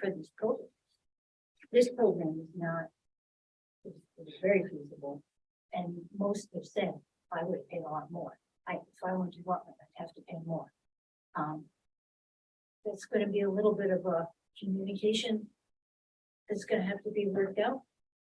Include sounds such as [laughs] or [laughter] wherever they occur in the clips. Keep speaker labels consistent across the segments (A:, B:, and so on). A: for this program. This program is not. It's it's very feasible, and most have said, I would pay a lot more, I, if I wanted to go up, I'd have to pay more. Um. That's gonna be a little bit of a communication. That's gonna have to be worked out,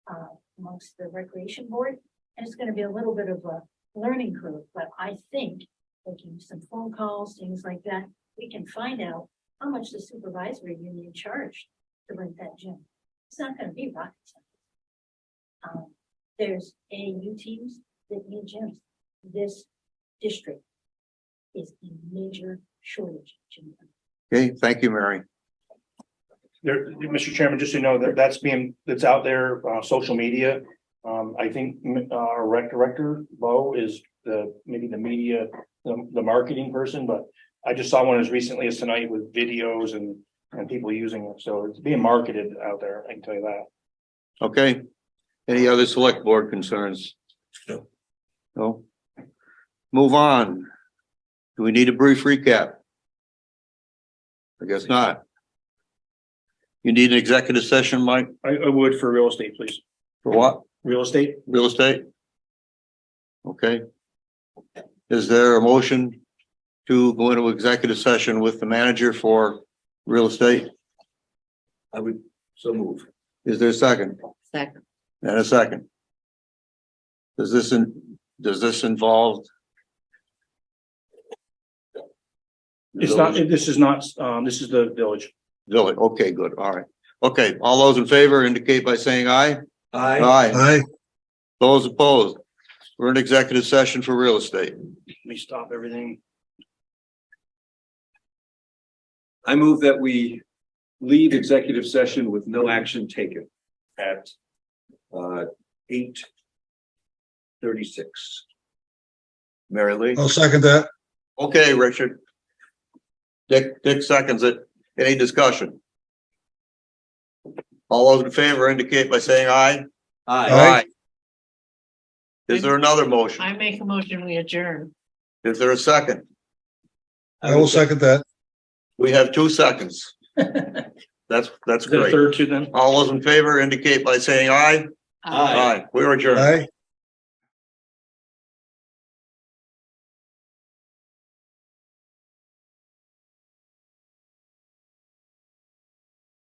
A: uh, amongst the recreation board, and it's gonna be a little bit of a learning curve, but I think. Making some phone calls, things like that, we can find out how much the supervisory union charged to rent that gym. It's not gonna be rocket science. Um, there's AAU teams that need gyms. This district is in major shortage of gym.
B: Okay, thank you, Mary.
C: There, Mr. Chairman, just so you know, that that's being, that's out there, uh, social media. Um, I think, mm, uh, our rec director, Bo, is the, maybe the media, the, the marketing person, but. I just saw one as recently as tonight with videos and, and people using it, so it's being marketed out there, I can tell you that.
B: Okay. Any other select board concerns?
C: No.
B: No? Move on. Do we need a brief recap? I guess not. You need an executive session, Mike,
C: I, I would for real estate, please,
B: for what?
C: real estate,
B: Real estate? Okay. Is there a motion to go into executive session with the manager for real estate?
D: I would so move.
B: Is there a second?
E: Second.
B: And a second. Does this, in- does this involve?
C: it's not, this is not, um, this is the village.
B: Village, okay, good, all right. Okay, all those in favor indicate by saying aye.
F: Uh,
D: I.
B: Aye. Those opposed? We're in executive session for real estate.
C: Let me stop everything.
D: I move that we leave executive session with no action taken at uh eight thirty-six.
B: Mary Lee?
F: I'll second that.
B: Okay, Richard. Dick, Dick seconds it. Any discussion? All those in favor indicate by saying aye.
F: Aye.
B: Is there another motion?
E: I make a motion, we adjourn.
B: Is there a second?
F: I will second that.
B: We have two
C: [laughs]
B: seconds. That's, that's
C: Is there a
B: great.
C: third to them?
B: All those in favor indicate by saying aye.
D: Aye.
B: We are adjourned.
F: Aye.